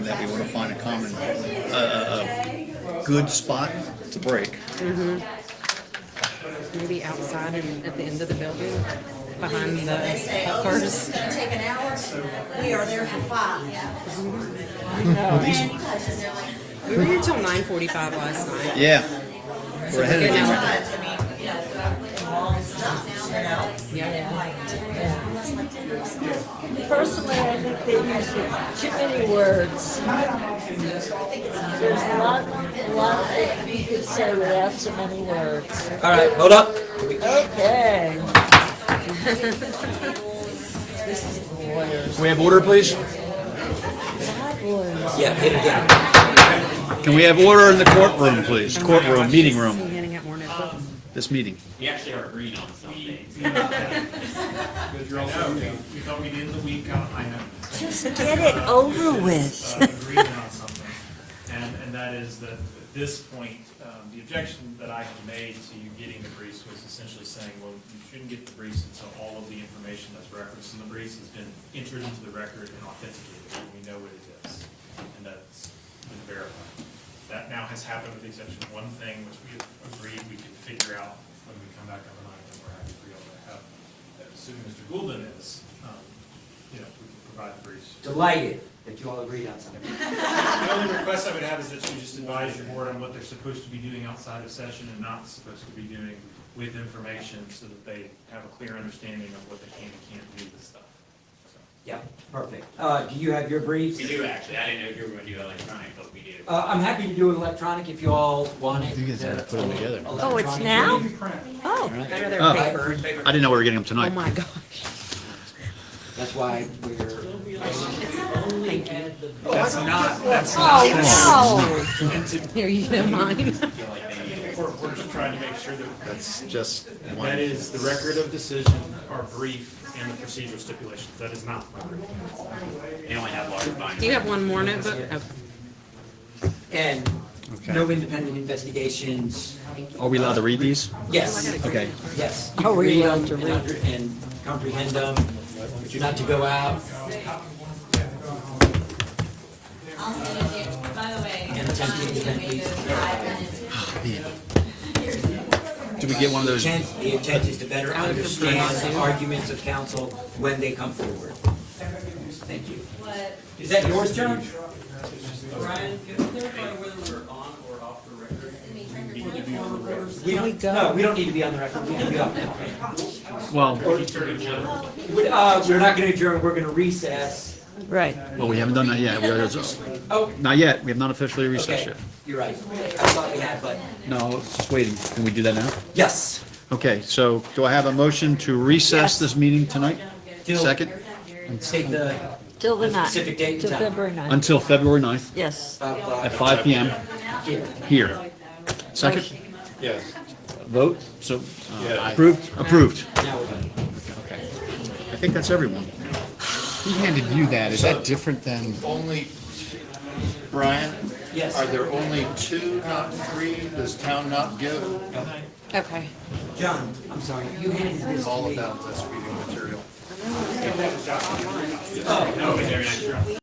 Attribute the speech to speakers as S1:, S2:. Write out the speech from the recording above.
S1: that we want to find a common, uh, a good spot to break.
S2: Maybe outside and at the end of the building, behind the hookers.
S3: gonna take an hour, we are there for five.
S2: We were here till nine forty-five last night.
S1: Yeah. We're ahead of the game.
S4: Personally, I think they use too many words. There's a lot, a lot that you could say without so many words.
S5: All right, hold up.
S4: Okay.
S5: Can we have order, please?
S4: Hot words.
S5: Yeah, hit it down.
S1: Can we have order in the courtroom, please? Courtroom, meeting room,
S2: Handing out more notebooks.
S1: this meeting.
S6: We actually are agreed on some things.
S7: Because you're also, we thought we'd end the week on a high note.
S4: Just get it over with.
S7: uh, agreement on something. And, and that is that at this point, um, the objection that I had made to you getting the briefs was essentially saying, well, you shouldn't get the briefs until all of the information that's referenced in the briefs has been entered into the record and authenticated, and we know what it is. And that's been verified. That now has happened with the exception of one thing, which we have agreed we can figure out when we come back on the night, and we're happy to be able to have, assuming Mr. Goulden is, um, you know, we can provide the briefs.
S5: Delighted that you all agreed on something.
S7: The only request I would have is that you just advise your board on what they're supposed to be doing outside of session and not supposed to be doing with information so that they have a clear understanding of what they can and can't do with stuff. So,
S5: Yeah, perfect. Uh, do you have your briefs?
S6: We do actually, I didn't know if you were gonna do electronic, but we do.
S5: Uh, I'm happy to do it electronic if you all want it. Uh,
S1: You guys gotta put 'em together.
S4: Oh, it's now? Oh,
S2: Better their
S1: Oh.
S2: paper.
S1: I didn't know we were getting them
S2: Oh
S1: tonight.
S2: my gosh.
S5: That's why we're.
S7: That's not, that's not,
S4: oh,
S2: Here, you know mine.
S7: we're, we're just trying to make sure that,
S1: It's just
S7: that
S1: one.
S7: is the record of decision, our brief, and the procedural stipulations. That is not my brief.
S6: They only have large binders.
S2: Do you have one more notebook? Oh,
S5: And
S1: Okay.
S5: no independent investigations.
S1: Are we allowed to read these?
S5: Yes,
S1: Okay.
S5: yes. You
S4: Oh,
S5: can
S4: we
S5: read
S4: love
S5: them
S4: to
S5: and under- And comprehend them, but you're not to go out
S3: I'll send it to you. By the way,
S5: and attempt to
S3: I made
S5: independently.
S3: those five minutes.
S1: Do we get one of those?
S5: intent, the intent is to better understand the arguments of counsel when they come forward. Thank you. Is that yours, John?
S8: Brian, can you clarify whether we're on or off the record?
S5: We don't, no, we don't need to be on the record, we can be off now.
S1: Well,
S5: Would, uh, we're not gonna adjourn, we're gonna recess.
S4: right.
S1: well, we haven't done that yet. We are-
S5: Oh,
S1: Not yet. We have not officially recessed
S5: okay,
S1: yet.
S5: you're right. I thought we had, but,
S1: No, it's just waiting. Can we do that now?
S5: yes.
S1: Okay, so do I have a motion to recess this meeting tonight?
S5: Till-
S1: Second,
S5: State the uh,
S4: Till the ninth.
S5: specific date
S4: Till
S5: and time.
S4: February ninth.
S1: until February 9th
S4: Yes.
S5: Five
S1: at
S5: o'clock.
S1: 5 PM
S5: Here.
S1: here. Second?
S9: Yes.
S1: Vote, so uh, approved, approved.
S5: Now we're done.
S1: I think that's everyone. He handed you that, is that different than?
S9: Only, Brian,
S5: Yes.
S9: are there only two, not three? Does town not give
S2: Okay.
S5: John, I'm sorry, you handed this to
S9: all
S5: me.
S9: about this reading material?
S6: No, but they're not sure.